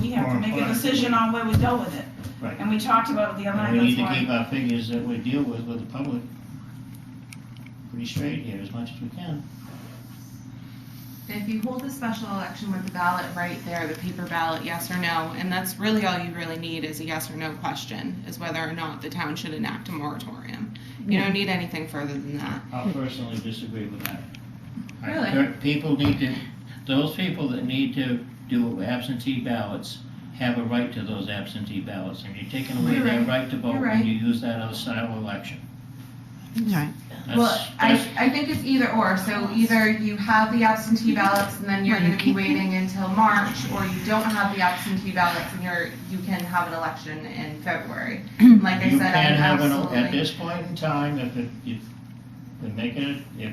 we have to More make a importantly, decision on where we go with it. Right. And we talked about it the other And night, we need that's to keep why. our figures that we deal with with the public pretty straight here as much as we can. If you hold a special election with the ballot right there, the paper ballot, yes or no, and that's really all you really need is a yes or no question, is whether or not the town should enact a moratorium. You don't need anything further than that. I personally disagree with that. I- Really? per- People need to, those people that need to do absentee ballots have a right to those absentee ballots, and you're taking away You're their right. right to vote You're when right. you use that as a style election. Right. That's- Well, I, that's- I think it's either or, so either you have the absentee ballots and then you're Right, you gonna be waiting until March, or you don't have the absentee ballots and you're, you can have an election in February. Like I You said, I can have an, at absolutely, this point in time, if it, if, we make it, if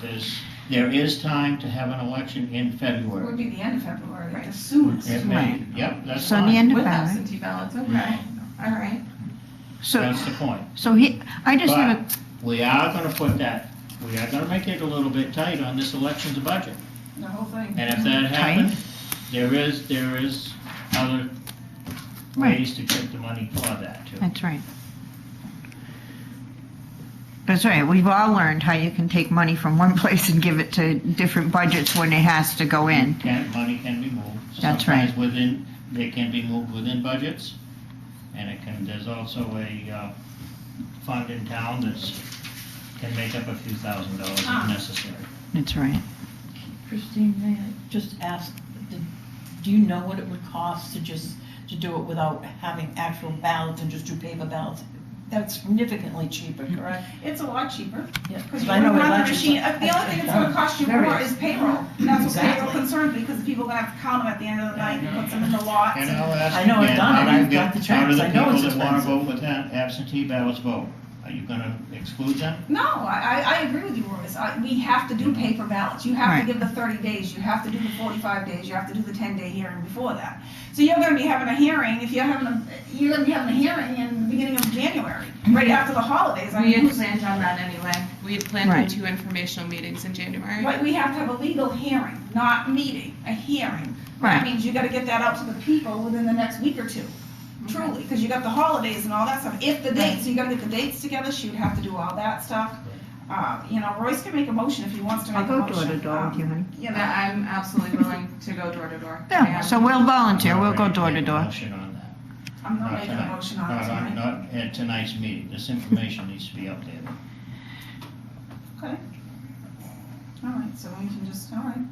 there's, there is time to have an election in It would February. be the end of February, Right. the soonest. It may, yep, that's So in the fine. end of with February. absentee ballots, okay, all right. So, That's the point. so he, I just have a, We are gonna put that, we are gonna make it a little bit tight on this election's budget. The whole thing. And if that happens, there is, there is other Right. ways to get the money for that too. that's right. That's right, we've all learned how you can take money from one place and give it to different budgets when it has to go in. Can, money can be moved. That's right. Sometimes within, they can be moved within budgets. And it can, there's also a, uh, fund in town that's, can make up a few thousand dollars if Ah. necessary. That's right. Christine, may I just ask, did- do you know what it would cost to just, to do it without having actual ballots and just do paper ballots? That's significantly cheaper, Mm-hmm. correct? It's a lot cheaper. Yeah, Because you I know wouldn't it want the lasts- machine, uh, the only thing that's gonna cost you Very- more is payroll. And That's what payroll Exactly. concerns me, because the people are gonna have to count them at the end of the night and put them in the lots. And and- I'll ask I know I've again, done how it. do you I've got get- the charts. I know How it's do the people that wanna expensive. vote with that absentee ballots vote? Are you gonna exclude them? No, I, I I agree with you, Royce. I- We have to do paper ballots. You have Right. to give the 30 days, you have to do the 45 days, you have to do the 10-day hearing before that. So you're gonna be having a hearing, if you're having a, you're gonna be having a hearing in the beginning of January, right after the holidays. I We mean, had who's- planned on that anyway. We had planned on Right. two informational meetings in January. Right, we have to have a legal hearing, not meeting, a hearing. That Right. means you gotta get that out to the people within the next week or two, Mm-hmm. truly, because you got the holidays and all that stuff. If the dates, you gotta get the dates together, she would have to do all that stuff. Uh, you know, Royce can make a motion if he wants to I'll make a go motion. door to door with you, honey. Um, You But know, I'm absolutely willing to go door to door. I Yeah, am. so we'll volunteer, we'll go Already door made to a door. Motion on that. I'm not Not making a tonight. motion on it Not, on- tonight. not at tonight's meeting. This information needs to be up there. All right, so we can just, all right.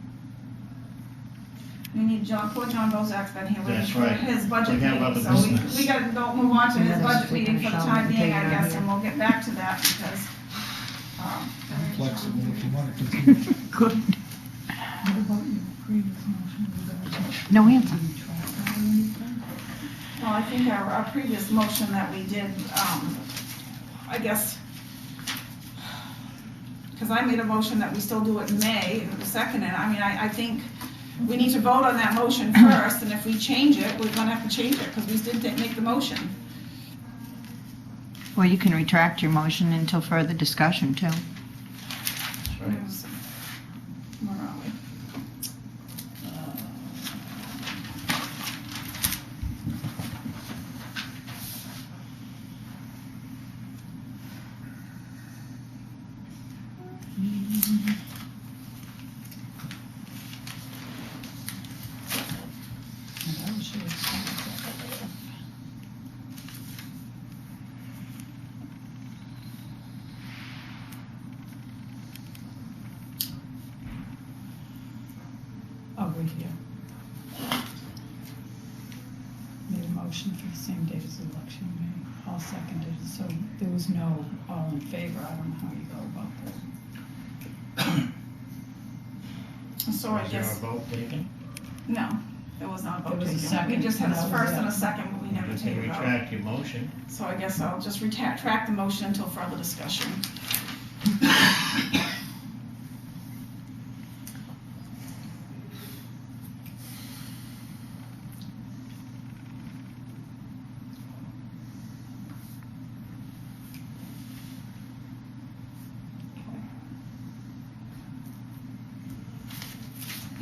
We need John, poor John Bozak's been here waiting That's for right. his We budget have meeting, other so we, business. we gotta go, move on to Yeah, his that's budget what meeting we for the shall time being, take I on guess, here. and we'll get back to that because, um. I'm flexible if you want to continue. Good. What about your previous motion regarding No answer. the track or anything? Well, I think our, our previous motion that we did, um, I guess, because I made a motion that we still do it in May, and it was seconded, I mean, I, I think we need to vote on that motion first, and if we change it, we're gonna have to change it, because we did ta- make the motion. Well, you can retract your motion until further discussion, too. That's right. Where was- where are we? Oh, Over here. Made a motion for the same day as the election day. All seconded, so there was no all in favor. I don't know how you go about that. So I Is there a guess, vote taken? no, there was not a vote There was a taken. second, We just had and a that was first and a it. second, but we never You can take a vote. retract your motion. So I guess I'll just retract, track the motion until further discussion.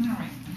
All right,